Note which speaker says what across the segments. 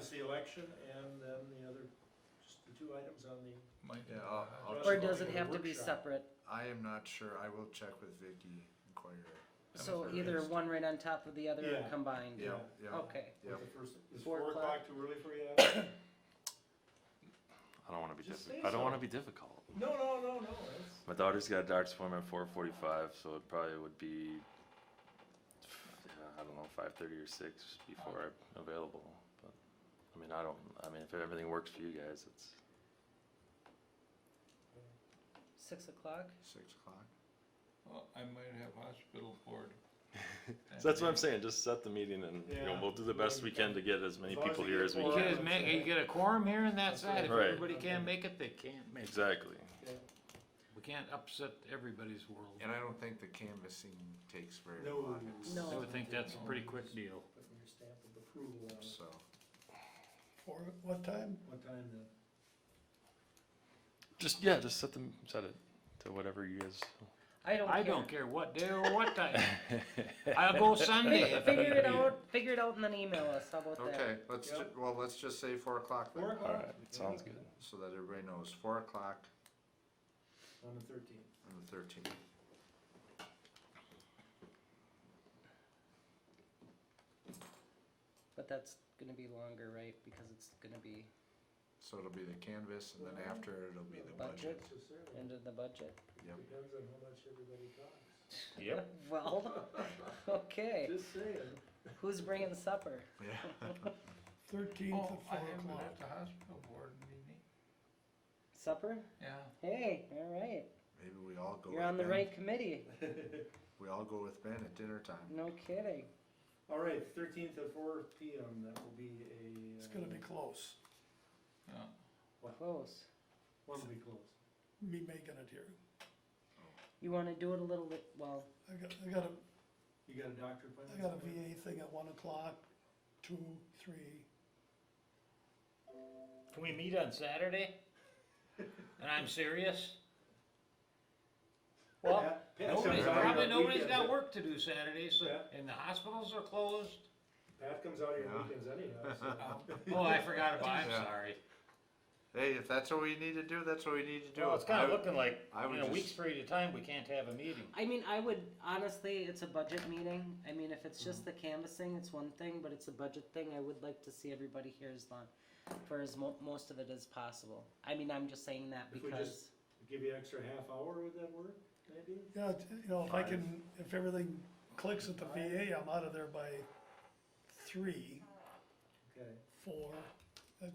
Speaker 1: is the election, and then the other, just the two items on the,
Speaker 2: My, yeah, I'll, I'll
Speaker 1: Or
Speaker 3: Or
Speaker 2: check.
Speaker 3: does it
Speaker 1: Or
Speaker 3: have to be
Speaker 1: workshop.
Speaker 3: separate?
Speaker 2: I am not sure. I will check with Vicky Inquirer.
Speaker 3: So either one right on top of the other or
Speaker 1: Yeah.
Speaker 3: combined?
Speaker 2: Yeah, yeah.
Speaker 3: Okay,
Speaker 2: Yeah.
Speaker 1: the first, is
Speaker 3: Four
Speaker 1: four
Speaker 3: o'clock.
Speaker 1: o'clock too early for you? Adam?
Speaker 4: I don't want to be
Speaker 1: Just
Speaker 4: difficult.
Speaker 1: say
Speaker 4: I don't
Speaker 1: so.
Speaker 4: want to be difficult.
Speaker 1: No, no, no, no, that's,
Speaker 4: My daughter's got a doctor's appointment at 4:45, so it probably would be, yeah, I don't know, 5:30 or 6 before I'm available. But I mean, I don't. I mean, if everything works for you guys, it's
Speaker 3: six o'clock?
Speaker 2: Six o'clock.
Speaker 5: Well, I might have hospital board. that
Speaker 4: so that's what I'm
Speaker 5: day.
Speaker 4: saying. Just set the meeting, and you know,
Speaker 1: Yeah.
Speaker 4: we'll do the best we can to get as many
Speaker 1: As long as
Speaker 4: people
Speaker 1: you
Speaker 4: here
Speaker 1: get
Speaker 4: as we
Speaker 1: four
Speaker 5: You
Speaker 4: can.
Speaker 5: get as many, you get a quorum here and that side, if
Speaker 4: Right.
Speaker 5: everybody can't make it, they can't make it.
Speaker 4: Exactly.
Speaker 1: okay.
Speaker 5: We can't upset everybody's world.
Speaker 2: And I don't think the canvassing takes very
Speaker 1: No.
Speaker 2: long. It's-
Speaker 3: No.
Speaker 5: I would think that's a pretty quick deal.
Speaker 1: Putting your stamp of approval on it.
Speaker 2: So,
Speaker 6: For what time?
Speaker 1: What time then?
Speaker 4: Just yeah, just set them set it to whatever you guys.
Speaker 3: I don't care.
Speaker 5: I don't care what day or what time. I'll go Sunday. if
Speaker 3: Figure it
Speaker 5: everybody-
Speaker 3: out, figure it out and then email us, how about that?
Speaker 2: okay, let's, ju-
Speaker 1: Yep.
Speaker 2: well, let's just say four o'clock
Speaker 1: Four
Speaker 2: then,
Speaker 4: All
Speaker 1: o'clock?
Speaker 4: right, sounds good.
Speaker 2: so that everybody knows. Four o'clock
Speaker 1: On the thirteenth.
Speaker 2: on the thirteenth.
Speaker 3: But that's gonna be longer, right, because it's gonna be
Speaker 2: So it'll be the canvas and then after it'll be the budget.
Speaker 3: budget, into the budget?
Speaker 2: Yep.
Speaker 1: Depends on how much everybody talks.
Speaker 4: Yep.
Speaker 3: Well, okay,
Speaker 1: Just saying.
Speaker 3: who's bringing supper?
Speaker 2: Yeah.
Speaker 6: Thirteenth
Speaker 5: Oh,
Speaker 6: at
Speaker 5: I
Speaker 6: four
Speaker 5: am
Speaker 6: o'clock.
Speaker 5: at the hospital board meeting.
Speaker 3: Supper?
Speaker 5: Yeah.
Speaker 3: Hey, alright,
Speaker 2: Maybe we all go.
Speaker 3: you're
Speaker 2: with
Speaker 3: on the
Speaker 2: Ben.
Speaker 3: right committee,
Speaker 2: We all go with Ben at dinner time.
Speaker 3: no kidding.
Speaker 1: All right, thirteenth at four P M, that will be a.
Speaker 6: It's gonna be
Speaker 1: uh,
Speaker 6: close,
Speaker 5: Yeah.
Speaker 3: Close.
Speaker 1: One will be closed.
Speaker 6: me making it here.
Speaker 3: You wanna do it a little bit, well,
Speaker 6: I got, I got a,
Speaker 1: You got a doctor appointment?
Speaker 6: I got a
Speaker 1: somewhere?
Speaker 6: VA thing at one o'clock, two, three.
Speaker 5: Can we meet on Saturday? And I'm serious? Well,
Speaker 1: Pat- Pat
Speaker 5: nobody's,
Speaker 1: comes out here
Speaker 5: probably
Speaker 1: on
Speaker 5: nobody's
Speaker 1: weekends.
Speaker 5: got work to do Saturday, so,
Speaker 1: Yeah.
Speaker 5: and the hospitals are closed.
Speaker 1: Pat comes out here
Speaker 2: Yeah.
Speaker 1: on weekends anyhow, so.
Speaker 5: Oh, I forgot about, I'm
Speaker 2: Yeah.
Speaker 5: sorry.
Speaker 2: Hey, if that's what we need to do, that's what we need to do.
Speaker 5: Well, it's kinda
Speaker 2: I-
Speaker 5: looking like,
Speaker 2: I
Speaker 5: in
Speaker 2: would
Speaker 5: a
Speaker 2: just-
Speaker 5: week's period of time, we can't have a meeting.
Speaker 3: I mean, I would, honestly, it's a budget meeting, I mean, if it's just the canvassing, it's one thing, but it's a budget thing, I would like to see everybody here as long, for as mo- most of it as possible. I mean, I'm just saying that
Speaker 1: If we
Speaker 3: because,
Speaker 1: just- Give you extra half hour, would that work, maybe?
Speaker 6: Yeah, t- you know, if I can, if everything clicks at the VA, I'm out of there by three,
Speaker 1: Okay.
Speaker 6: four. That-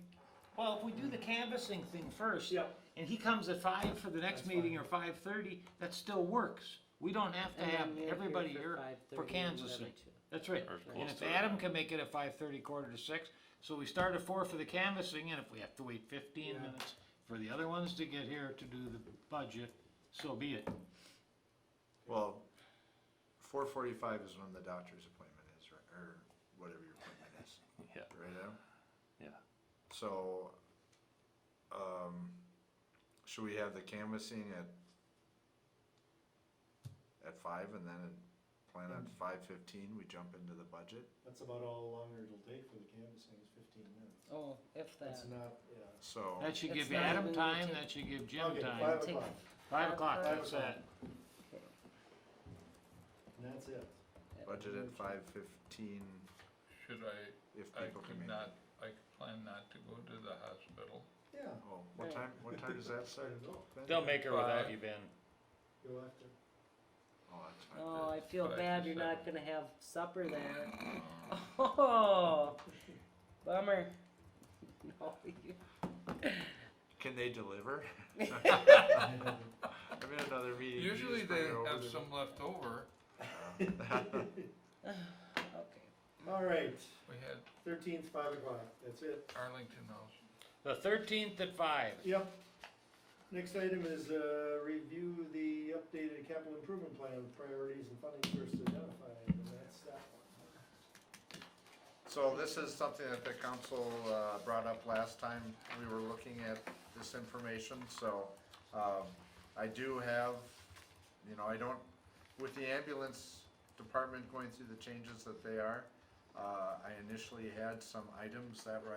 Speaker 5: Well, if we do the canvassing thing first,
Speaker 1: Yeah.
Speaker 5: and he comes at five for the next
Speaker 1: That's
Speaker 5: meeting or five thirty, that still works. We don't have to
Speaker 3: And then
Speaker 5: have
Speaker 3: you're here
Speaker 5: everybody
Speaker 3: for
Speaker 5: here
Speaker 3: 5:30
Speaker 5: for
Speaker 3: or
Speaker 5: canvassing.
Speaker 3: whatever, too.
Speaker 5: That's right.
Speaker 4: Or
Speaker 5: And
Speaker 4: close
Speaker 5: if
Speaker 4: to it.
Speaker 5: Adam can make it at five thirty, quarter to six, so we start at four for the canvassing, and if we have to wait fifteen
Speaker 1: Yeah.
Speaker 5: minutes for the other ones to get here to do the budget, so be it.
Speaker 2: Well, four forty-five is when the doctor's appointment is, right, or whatever your appointment is,
Speaker 4: Yeah.
Speaker 2: right, Adam?
Speaker 4: Yeah.
Speaker 2: So, um, should we have the canvassing at, at five and then plan
Speaker 3: Mm.
Speaker 2: on five fifteen, we jump into the budget?
Speaker 1: That's about all longer it'll take for the canvassing is fifteen minutes.
Speaker 3: oh, if that.
Speaker 1: That's not, yeah.
Speaker 2: So,
Speaker 5: That should
Speaker 3: It's
Speaker 5: give
Speaker 3: not
Speaker 5: Adam
Speaker 3: even
Speaker 5: time,
Speaker 3: routine.
Speaker 5: that should give Jim
Speaker 1: Okay,
Speaker 5: time.
Speaker 1: Five
Speaker 3: Take-
Speaker 1: o'clock,
Speaker 5: Five o'clock,
Speaker 1: Five
Speaker 5: that's
Speaker 1: o'clock.
Speaker 5: that.
Speaker 1: and that's it.
Speaker 2: budget at five fifteen,
Speaker 7: Should I,
Speaker 2: if
Speaker 7: I
Speaker 2: people can
Speaker 7: could
Speaker 2: make.
Speaker 7: not, I could plan not to go to the hospital.
Speaker 1: Yeah.
Speaker 2: Oh, what
Speaker 3: Right.
Speaker 2: time, what time does that start? Ben?
Speaker 5: They'll make her without
Speaker 7: Five.
Speaker 5: you, Ben.
Speaker 1: You'll have to.
Speaker 2: Oh, that's fine.
Speaker 3: Oh, I feel
Speaker 7: Five to
Speaker 3: bad, you're not gonna have supper there.
Speaker 2: Um,
Speaker 3: Oh, bummer. No, you-
Speaker 2: Can they deliver? I'm in another meeting. you
Speaker 7: Usually
Speaker 2: just bring
Speaker 7: they
Speaker 2: it over
Speaker 7: have
Speaker 2: to me.
Speaker 7: some left over.
Speaker 3: Okay,
Speaker 1: All right,
Speaker 7: We had
Speaker 1: thirteenth, five o'clock, that's it.
Speaker 7: Arlington House.
Speaker 5: The thirteenth at five.
Speaker 1: Yep. Next item is, uh, review the updated capital improvement plan, with priorities and funding first identified, and that's that one.
Speaker 2: So this is something that the council uh, brought up last time we were looking at this information, so um, I do have, you know, I don't, with the ambulance department going through the changes that they are, uh, I initially had some items that were